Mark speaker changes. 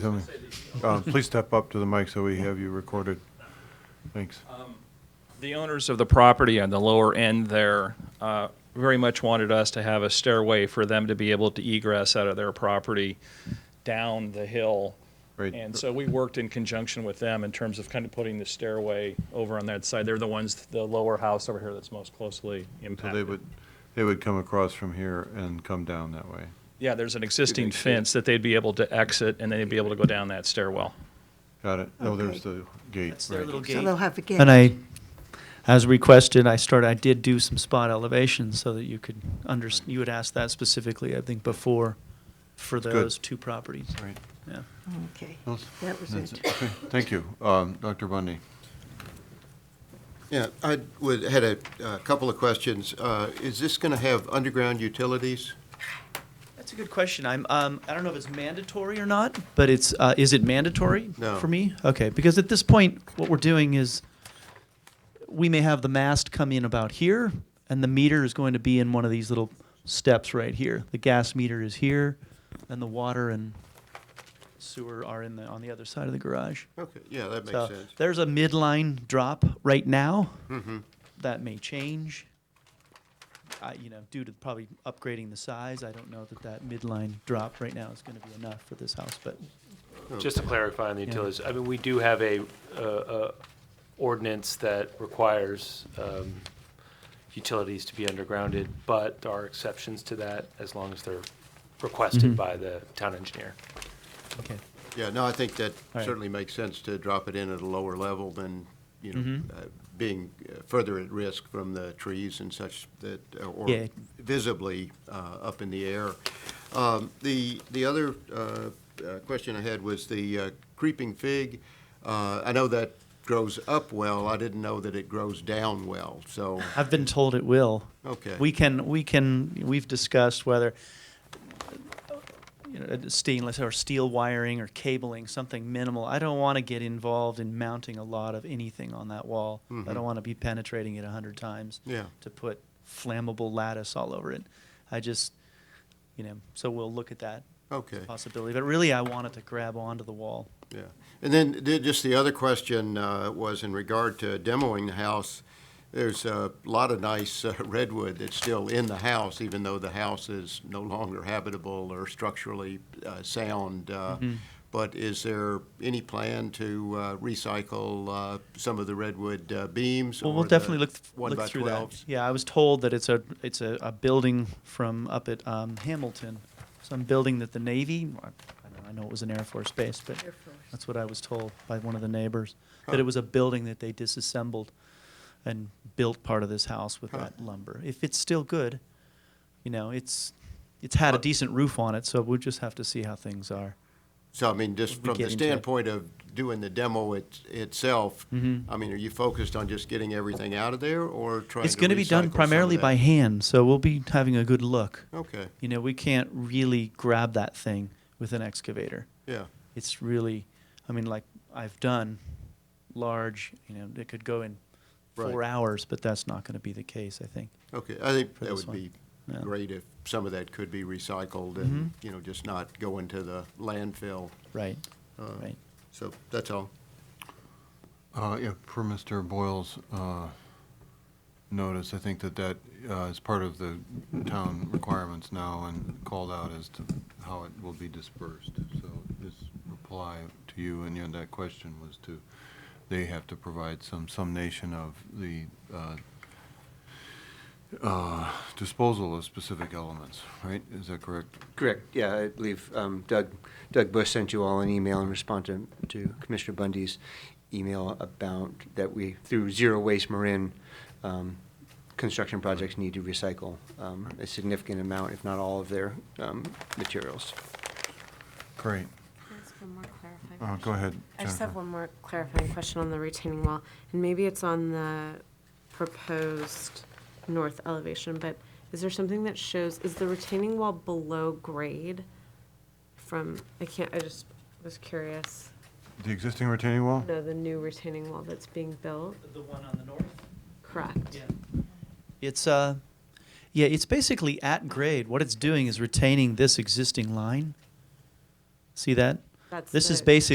Speaker 1: Tell me. Uh, Please step up to the mic so we have you recorded. Thanks.
Speaker 2: The owners of the property on the lower end there uh, very much wanted us to have a stairway for them to be able to egress out of their property down the hill.
Speaker 1: Great.
Speaker 2: And so we worked in conjunction with them in terms of kind of putting the stairway over on that side. They're the ones, the lower house over here that's most closely
Speaker 1: So they
Speaker 2: impacted.
Speaker 1: would, they would come across from here and come down that way.
Speaker 2: Yeah, there's an existing fence that they'd be able to exit, and then they'd be able to go down that stairwell.
Speaker 1: Got it? No, there's the gate.
Speaker 3: That's their
Speaker 1: right.
Speaker 3: little
Speaker 4: So
Speaker 3: gate.
Speaker 4: they'll have a gate.
Speaker 5: And I, as requested, I started, I did do some spot elevations so that you could under, you would ask that specifically, I think, before for
Speaker 1: good.
Speaker 5: those two properties.
Speaker 1: Right.
Speaker 5: Yeah.
Speaker 4: Okay,
Speaker 1: No,
Speaker 4: that was
Speaker 1: that's
Speaker 4: it.
Speaker 1: Okay, Thank you. Um, Dr. Bundy,
Speaker 6: Yeah, I would, had a uh, couple of questions. Uh, Is this going to have underground utilities?
Speaker 5: That's a good question. I'm, um, I don't know if it's mandatory or not, but it's, uh, is it mandatory
Speaker 6: No.
Speaker 5: for me? Okay, because at this point, what we're doing is we may have the mast come in about here, and the meter is going to be in one of these little steps right here. The gas meter is here, and the water and sewer are in the, on the other side of the garage.
Speaker 6: Okay, yeah, that
Speaker 5: So
Speaker 6: makes sense. Mm-hmm.
Speaker 5: there's a midline drop right now. That may change. I, you know, due to probably upgrading the size, I don't know that that midline drop right now is going to be enough for this house, but
Speaker 7: Just to clarify on the utilities, I mean, we do have a, uh, uh, ordinance that requires, um, utilities to be undergrounded, but there are exceptions to that as long as they're requested by the town engineer.
Speaker 5: okay.
Speaker 6: Yeah, no, I think that
Speaker 5: right.
Speaker 6: certainly makes sense to drop it in at a lower level than, you know,
Speaker 5: Mm-hmm.
Speaker 6: uh, being uh, further at risk from the trees and such that, or
Speaker 5: Yeah.
Speaker 6: visibly uh, up in the air. Um, The, the other uh, uh, question I had was the uh, creeping fig. Uh, I know that grows up well. I didn't know that it grows down well, so.
Speaker 5: I've been told it will.
Speaker 6: Okay.
Speaker 5: We can, we can, we've discussed whether you know, stainless or steel wiring or cabling, something minimal. I don't want to get involved in mounting a lot of anything on that wall. I don't want to be penetrating it a hundred times.
Speaker 6: Mm-hmm. Yeah.
Speaker 5: To put flammable lattice all over it. I just, you know, so we'll look at that
Speaker 6: Okay.
Speaker 5: possibility. But really, I want it to grab onto the wall.
Speaker 6: Yeah, and then the- just the other question uh, was in regard to demoing the house. There's a lot of nice uh, redwood that's still in the house, even though the house is no longer habitable or structurally uh, sound. uh,
Speaker 5: Mm-hmm.
Speaker 6: But is there any plan to uh, recycle uh, some of the redwood uh, beams?
Speaker 5: Well, we'll
Speaker 6: or the
Speaker 5: definitely look, th-
Speaker 6: one by
Speaker 5: look through that.
Speaker 6: 12s?
Speaker 5: Yeah, I was told that it's a, it's a, a building from up at um, Hamilton, some building that the Navy, I don't know, I know it was an Air Force base, but
Speaker 4: Air Force.
Speaker 5: that's what I was told by one of the neighbors, that it was a building that they disassembled and built part of this house with that lumber. If it's still good, you know, it's, it's had a decent roof on it, so we'll just have to see how things are.
Speaker 6: So, I mean, just
Speaker 5: We
Speaker 6: from
Speaker 5: get
Speaker 6: the
Speaker 5: into it.
Speaker 6: standpoint of doing the demo it- itself,
Speaker 5: Mm-hmm.
Speaker 6: I mean, are you focused on just getting everything out of there or trying to
Speaker 5: It's gonna be
Speaker 6: recycle some
Speaker 5: done
Speaker 6: of
Speaker 5: primarily
Speaker 6: that?
Speaker 5: by hand, so we'll be having a good look.
Speaker 6: Okay,
Speaker 5: You know, we can't really grab that thing with an excavator.
Speaker 6: yeah.
Speaker 5: It's really, I mean, like I've done large, you know, it could go in four
Speaker 6: Right.
Speaker 5: hours, but that's not going to be the case, I think.
Speaker 6: Okay, I think
Speaker 5: for
Speaker 6: that
Speaker 5: this
Speaker 6: would be
Speaker 5: one. Yeah. Mm-hmm.
Speaker 6: great if some of that could be recycled and, you know, just not go into the landfill.
Speaker 5: Right. right.
Speaker 6: So that's all.
Speaker 1: uh, yeah, per Mr. Boyle's, uh, notice, I think that that, uh, is part of the town requirements now and called out as to how it will be dispersed. So this reply to you and your, that question was to, they have to provide some summation of the, uh, uh, disposal of specific elements, right? Is that correct?
Speaker 8: Correct, yeah, I believe um, Doug, Doug Bush sent you all an email in response to, to Commissioner Bundy's email about that we, through Zero Waste Marin, um, construction projects need to recycle um, a significant amount, if not all of their um, materials.
Speaker 1: Great.
Speaker 9: Can I ask one more clarifying
Speaker 1: Uh,
Speaker 9: question?
Speaker 1: go ahead.
Speaker 9: I just
Speaker 1: Jennifer.
Speaker 9: have one more clarifying question on the retaining wall, and maybe it's on the proposed north elevation, but is there something that shows, is the retaining wall below grade from, I can't, I just was curious,
Speaker 1: The existing retaining wall?
Speaker 9: no, the new retaining wall that's being built,
Speaker 5: The one on the north?
Speaker 9: correct?
Speaker 5: It's, uh, yeah, it's basically at grade. What it's doing is retaining this existing line. See that?
Speaker 9: That's
Speaker 5: This is
Speaker 9: the-
Speaker 5: basically